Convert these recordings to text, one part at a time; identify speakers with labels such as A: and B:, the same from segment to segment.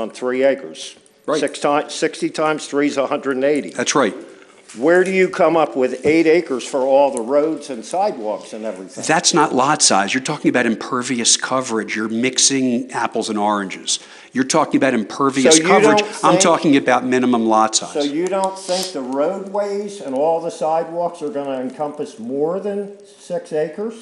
A: on three acres.
B: Right.
A: Six times, 60 times three is 180.
B: That's right.
A: Where do you come up with eight acres for all the roads and sidewalks and everything?
B: That's not lot size. You're talking about impervious coverage. You're mixing apples and oranges. You're talking about impervious
A: you
B: coverage.
A: don't
B: I'm
A: think-
B: talking about minimum lot size.
A: So you don't think the roadways and all the sidewalks are gonna encompass more than six acres?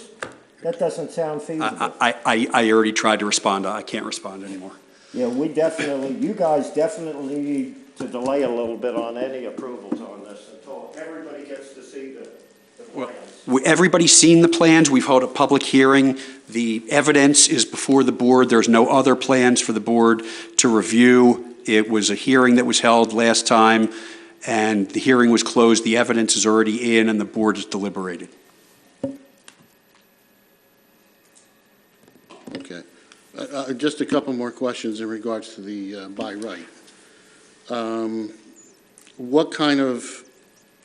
A: That doesn't sound feasible.
B: I, I, I already tried to respond. I can't respond anymore.
A: Yeah, we definitely, you guys definitely need to delay a little bit on any approvals on this until everybody gets to see the, the plans.
B: We- Everybody's seen the plans. We've held a public hearing. The evidence is before the board. There's no other plans for the board to review. It was a hearing that was held last time, and the hearing was closed. The evidence is already in, and the board has deliberated.
C: Okay. Uh, uh, Just a couple more questions in regards to the uh, by right. Um, What kind of,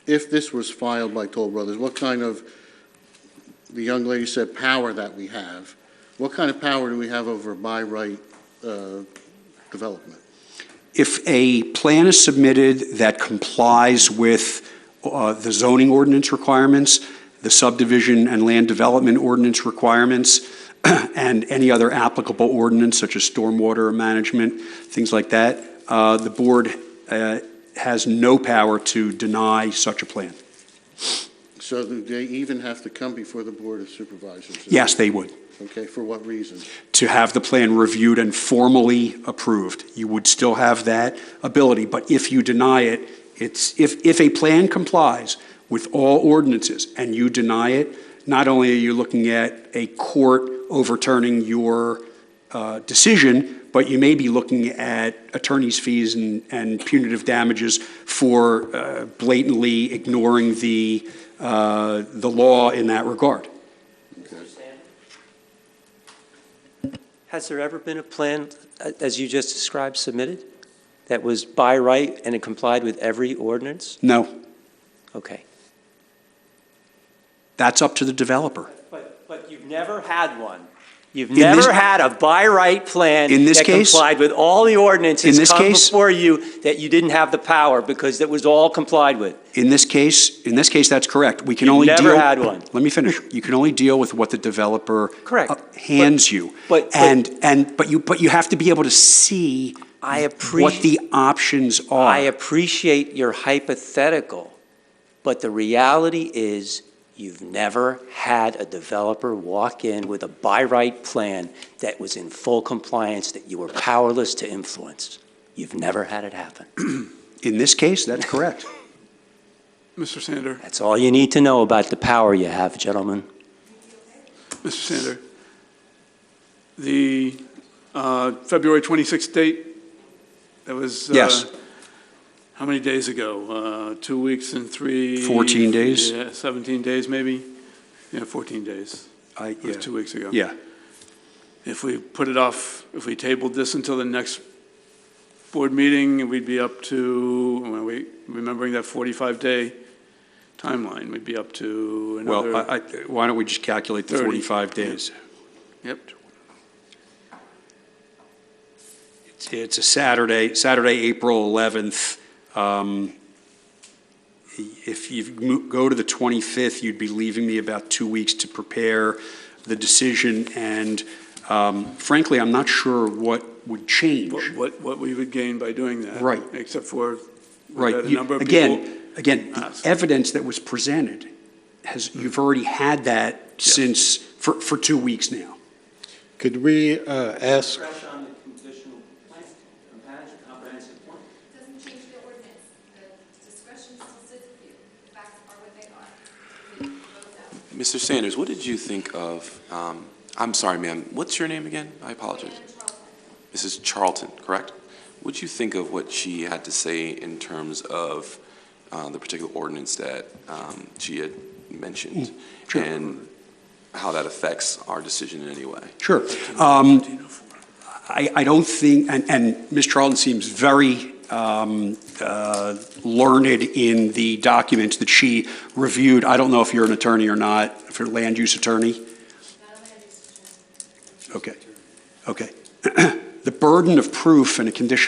C: if this was filed by Toll Brothers, what kind of, the young lady said power that we have, what kind of power do we have over by right uh, development?
B: If a plan is submitted that complies with uh, the zoning ordinance requirements, the subdivision and land development ordinance requirements, and any other applicable ordinance such as stormwater management, things like that, uh, the board uh, has no power to deny such a plan.
C: So do they even have to come before the Board of Supervisors?
B: Yes, they would.
C: Okay, for what reason?
B: to have the plan reviewed and formally approved. You would still have that ability, but if you deny it, it's, if, if a plan complies with all ordinances and you deny it, not only are you looking at a court overturning your uh, decision, but you may be looking at attorney's fees and, and punitive damages for uh, blatantly ignoring the, uh, the law in that regard.
D: Has there ever been a plan, uh, as you just described, submitted that was by right and it complied with every ordinance?
B: No,
D: Okay.
B: that's up to the developer.
D: But, but you've never had one. You've
B: In this-
D: never had a by right plan
B: In this case-
D: that complied with all the ordinances
B: In this
D: come
B: case-
D: before you that you didn't have the power because that was all complied with.
B: In this case, in this case, that's correct. We can
D: You've
B: only deal.
D: never had one.
B: Let me finish. You can only deal with what the developer.
D: Correct.
B: uh, Hands you.
D: but- but-
B: And, and, but you, but you have to be able to see.
D: I
B: What
D: appreciate-
B: the options are.
D: I appreciate your hypothetical, but the reality is you've never had a developer walk in with a by right plan that was in full compliance that you were powerless to influence. You've never had it happen.
B: In this case, that's correct.
E: Mr. Sander,
D: That's all you need to know about the power you have, gentlemen.
E: Mr. Sander, the uh, February 26th date, that was. uh,
B: Yes.
E: How many days ago? Uh, Two weeks and three?
B: 14 days.
E: Yeah, 17 days, maybe? Yeah, 14 days.
B: I-
E: It was
B: yeah.
E: two weeks ago.
B: Yeah.
E: If we put it off, if we tabled this until the next board meeting, we'd be up to, when we- remembering that 45-day timeline, we'd be up to another.
B: Well, I, I, why don't we just calculate the
E: Thirty.
B: forty-five days?
E: Yep.
B: It's- It's a Saturday, Saturday, April eleventh. Um, if you mo- go to the twenty-fifth, you'd be leaving me about two weeks to prepare the decision. And um, frankly, I'm not sure what would change.
E: What- What, what we would gain by doing that.
B: Right.
E: Except for
B: Right.
E: that a
B: You-
E: number of people-
B: Again, again, the
E: ask.
B: evidence that was presented has, you've already had that
E: Yes.
B: since, for, for two weeks now.
F: Could we uh, ask,
D: Fresh on the conditional plan, comprehensive plan.
G: Doesn't change the ordinance. The discretion still sits with you. The facts are what they are. We vote that.
H: Mr. Sanders, what did you think of, um, I'm sorry, ma'am, what's your name again? I apologize.
G: And Charles
H: Mrs. Charlton, correct? What'd you think of what she had to say in terms of uh, the particular ordinance that um, she had mentioned?
B: sure.
H: And how that affects our decision in any way?
B: Sure. Um, I, I don't think, and, and Ms. Charlton seems very um, uh, learned in the documents that she reviewed. I don't know if you're an attorney or not, if you're a land use attorney.
G: not a land use attorney.
B: Okay, okay. The burden of proof in a conditional